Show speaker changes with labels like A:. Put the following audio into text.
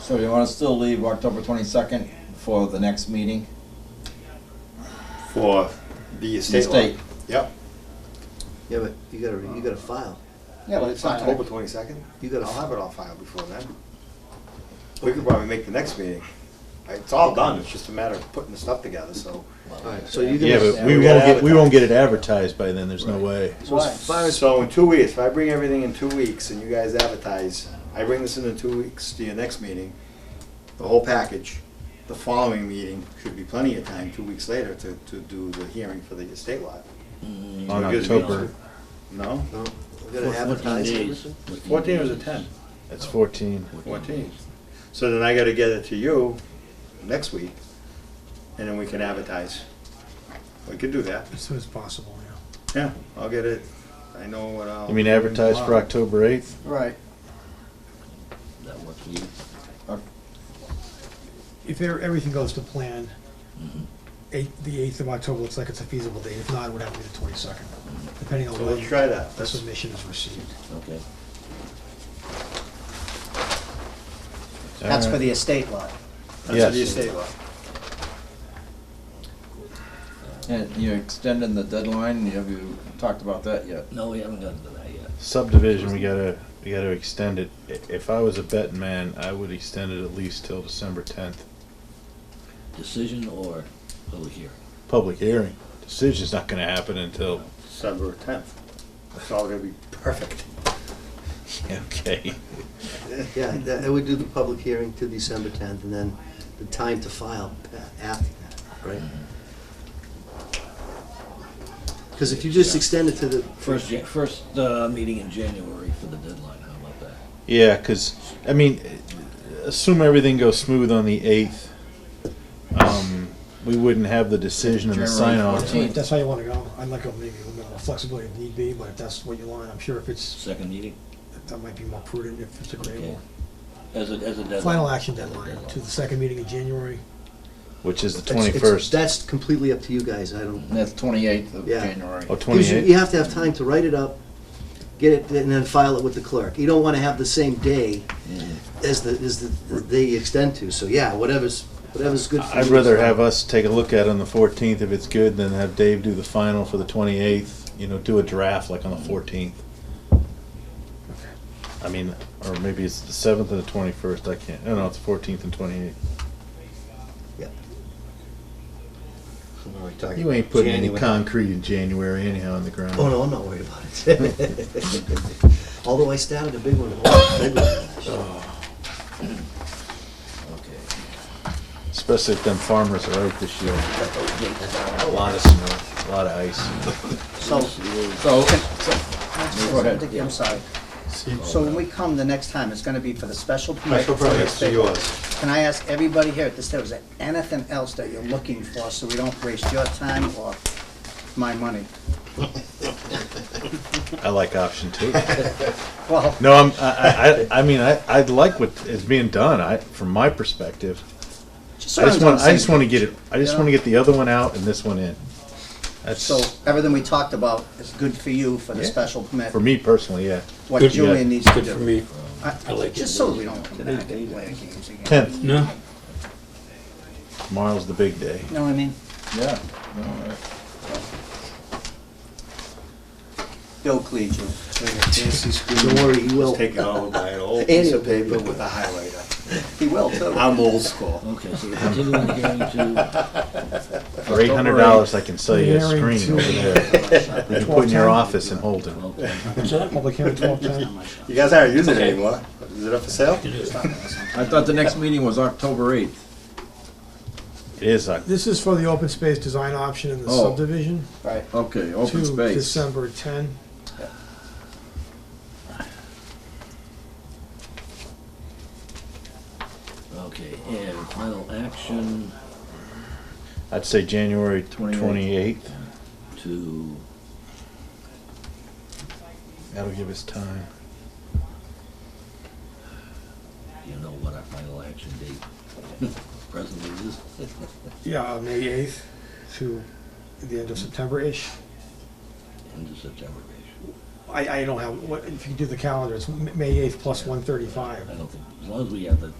A: So you wanna still leave October twenty-second for the next meeting?
B: for the
A: The
B: estate law.
A: state.
B: Yep,
C: Yeah, but you gotta, you gotta file.
B: yeah, but it's
A: Fine.
B: October twenty-second,
C: You gotta-
B: I'll have it all filed before then. We could probably make the next meeting, it's all done, it's just a matter of putting the stuff together, so.
C: Alright, so you're
D: Yeah,
C: gonna,
D: but we
B: We
D: won't
B: gotta
D: get, we
B: advertise.
D: won't get it advertised by then, there's no way.
C: so as far as,
B: So in two weeks, if I bring everything in two weeks and you guys advertise, I bring this in in two weeks to your next meeting, the whole package, the following meeting should be plenty of time, two weeks later, to, to do the hearing for the estate lot.
D: On
B: It gives me-
D: October,
B: No?
C: no, we're gonna advertise everything?
B: Fourteen was a ten.
D: it's fourteen.
B: Fourteen. So then I gotta get it to you next week, and then we can advertise. We could do that,
E: As soon as possible, yeah.
B: yeah, I'll get it, I know what I'll.
D: I mean, advertise for October eighth,
A: Right.
F: That works for you.
E: If e- everything goes to plan, eight, the eighth of October looks like it's a feasible date. If not, it would have to be the twenty-second, depending on
B: So
E: when
B: let's try that,
E: the
B: let's,
E: submission is received.
F: Okay.
G: That's for
C: Uh,
G: the estate lot.
B: that's for
D: Yes.
B: the estate lot.
A: And you're extending the deadline, have you talked about that yet?
F: No, we haven't gotten to that yet.
D: subdivision, we gotta, we gotta extend it. I- If I was a betting man, I would extend it at least till December tenth.
F: Decision or public hearing?
D: Public hearing, decision's not gonna happen until,
B: December tenth. It's all gonna be perfect.
D: okay.
C: Yeah, that, and we do the public hearing to December tenth, and then the time to file pa- after that, right? Cause if you just extend it to the,
F: First, Ja- first uh, meeting in January for the deadline, how about that?
D: Yeah, because, I mean, assume everything goes smooth on the 8th. Um, we wouldn't have the decision and the
A: January
D: sign off.
A: 14th.
E: If that's how you wanna go, I'd like to maybe a little bit of flexibility if need be, but if that's what you want, I'm sure if it's,
F: Second meeting?
E: that might be more prudent if it's
F: Okay.
E: agreeable.
F: As a, as a deadline?
E: Final action deadline to the second meeting in January.
D: Which is the
C: it's- it's-
D: 21st.
C: that's completely up to you guys, I don't.
A: And that's twenty-eighth of
C: Yeah.
A: January.
D: Or
C: Because you- You
D: 28th.
C: have to have time to write it up, get it, and then file it with the clerk. You don't want to have the same day
F: Mm-hmm.
C: as the, as the, they extend to, so yeah, whatever's, whatever's good for you.
D: I'd rather have us take a look at it on the 14th if it's good than have Dave do the final for the 28th. You know, do a draft like on the 14th. I mean, or maybe it's the 7th and the 21st. I can't. No, no, it's the 14th and 28th. You ain't putting any concrete in January anyhow in the ground.
C: Oh, no, I'm not worried about it. Although I started a big one, a big one.
F: Okay.
D: Especially if them farmers are out this year. A lot of snow, a lot of ice.
G: So,
A: So, Go ahead.
G: I'm sorry. So when we come the next time, it's gonna be for the special permit.
B: Special
G: for the
B: permits to
G: estate.
B: yours.
G: Can I ask everybody here at this table, is there anything else that you're looking for, so we don't waste your time or my money?
D: I like option two.
G: Well,
D: No, I'm, I, I, I mean, I, I like what is being done, I, from my perspective.
G: just so
D: I just
G: everyone's on the
D: want, I just
G: same
D: wanna
G: page.
D: get it, I just wanna get the other one out and this one in.
G: So
D: That's,
G: everything we talked about is good for you for the
D: Yeah.
G: special permit,
D: for me personally, yeah.
G: what
H: Good-
G: Julian needs to do.
H: Good for me.
G: I-
H: I like
G: Just
H: it.
G: so we don't come back and play games again.
D: Tenth,
H: No,
D: tomorrow's the big day.
G: You know what I mean?
A: yeah. No, uh,
G: Bill Cleach,
C: Nancy Don't worry, you will.
B: Take it all by an old
C: Any
B: piece of
C: of them.
B: paper with a highlighter.
G: he will too.
B: I'm old school.
F: Okay, so we're continuing the hearing to,
D: For eight hundred dollars, I can sell you a
E: Hearing
D: screen over
E: to-
D: there. You can put in your
E: 12:10.
D: office in Holden.
F: okay,
E: Public hearing twelve ten.
B: You guys aren't using it anymore. Is it up for sale?
A: I thought the next meeting was October eighth.
D: It is, uh,
E: This is for the open space design option in the
A: Oh.
E: subdivision
G: right,
A: Okay, open
E: to
A: space.
E: December ten.
F: okay, and final action
D: I'd say January
A: 28th.
D: twenty-eighth.
F: to,
D: That'll give us time.
F: you know what our final action date presently is?
E: Yeah, uh, May eighth to the end of September-ish.
F: End of September,
E: I, I don't have, what, if you do the calendar, it's M- May eighth plus one thirty-five.
F: I don't think, as long as we have the